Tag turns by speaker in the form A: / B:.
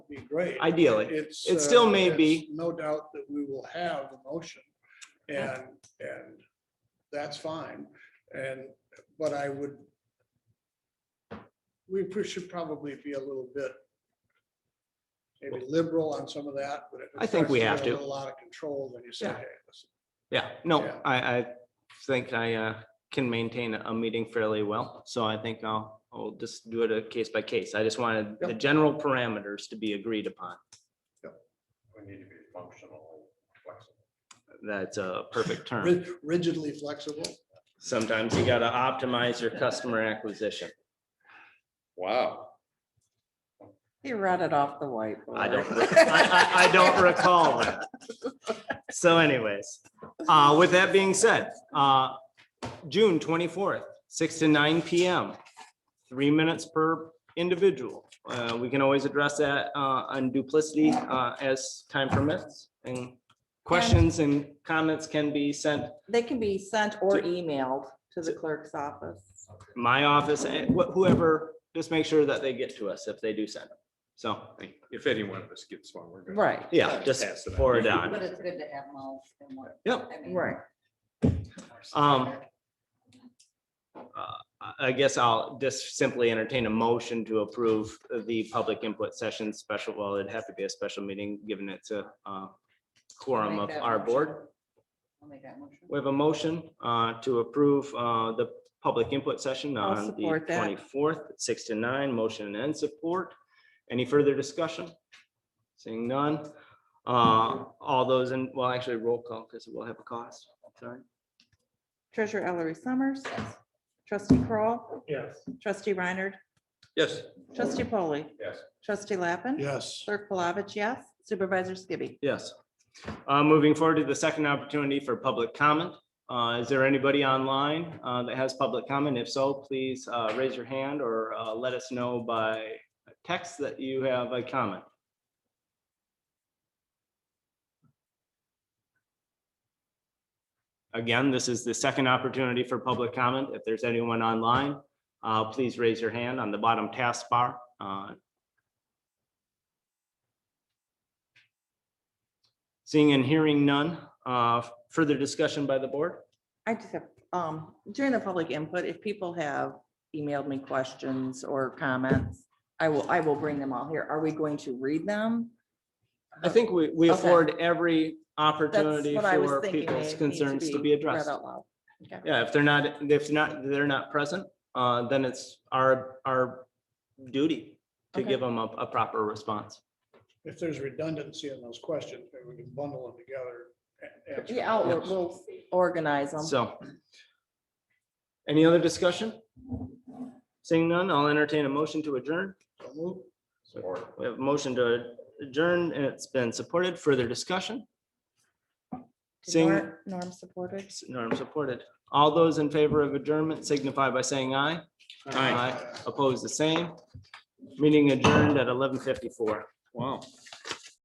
A: be great.
B: ideally.
A: It's.
B: It
A: uh,
B: still may
A: it's
B: be.
A: No doubt that we will have a motion and, and that's fine. And, but I would, we pr- should probably be a little bit maybe liberal on some of that, but. if it
B: I think we
A: starts
B: have
A: get A
B: to.
A: lot of control, then you say,
B: Yeah.
A: hey, listen,
B: Yeah, no,
A: Yeah.
B: I, I think I uh, can maintain a meeting fairly well, so I think I'll, I'll just do it a case by case. I just wanted the
A: Yep.
B: general parameters to be agreed upon.
C: We need to be functional, flexible.
B: That's a perfect term.
A: rid- rigidly flexible.
B: Sometimes you gotta optimize your customer acquisition.
C: Wow.
D: He read it off the whiteboard.
B: I don't, re- I, I, I don't recall that. So anyways, uh, with that being said, uh, June twenty-fourth, six to nine PM, three minutes per individual. Uh, we can always address that, uh, on duplicity, uh, as time permits and questions and comments can be sent
D: They can be sent or
B: To-
D: emailed to the clerk's office.
B: my office and wh- whoever, just make sure that they get to us if they do send them. So,
C: If any one of us gets one, we're good.
D: Right.
B: yeah, just
C: Pass it on.
B: forward on.
E: But it's good to have mulch and what.
B: Yep.
E: I mean,
D: Right.
B: Um, I- I guess I'll just simply entertain a motion to approve the public input session special, well, it'd have to be a special meeting, given it's a uh, quorum
E: Make
B: of
E: that
B: our
E: motion.
B: board.
E: I'll make that motion.
B: We have a motion uh, to approve uh, the public input session
D: I'll
B: on the
D: support that.
B: twenty-fourth, six to nine, motion and support. Any further discussion? Seeing none. Uh, All those in, well, actually roll call because we'll have a cost. Sorry.
D: Treasurer Ellery Summers. Trustee Kroll,
A: Yes.
D: Trustee Reiner.
C: Yes.
D: Trustee Polly.
C: Yes.
D: Trustee Lappin.
A: Yes.
D: Clerk Palovich, yes. Supervisor Skibby.
B: Yes. Uh, Moving forward to the second opportunity for public comment. Uh, Is there anybody online uh, that has public comment? If so, please uh, raise your hand or uh, let us know by text that you have a comment. Again, this is the second opportunity for public comment. If there's anyone online, uh, please raise your hand on the bottom taskbar. Uh, Seeing and hearing none, uh, further discussion by the board?
D: I just have, um, during the public input, if people have emailed me questions or comments, I will, I will bring them all here. Are we going to read them?
B: I think we, we
D: Okay.
B: afford every
D: That's
B: opportunity
D: what I was
B: for
D: thinking. They
B: people's
D: need
B: concerns to be
D: read
B: addressed.
D: out loud.
B: Yeah, if they're not, if not, they're not present, uh, then it's our, our duty to
D: Okay.
B: give them a, a proper response.
A: If there's redundancy in those questions, maybe we can bundle them together. and answer
D: Yeah, I'll-
A: those.
D: we'll organize them.
B: So. Any other discussion? Seeing none, I'll entertain a motion to adjourn.
A: So move.
C: Support.
B: We have a motion to adjourn and it's been supported. Further discussion?
D: Did
B: Seeing-
D: Norm- Norm supported.
B: Norm supported. All those in favor of adjournment signify by saying aye. Aye. Opposed, the same. Meeting adjourned at eleven fifty-four.
C: Wow.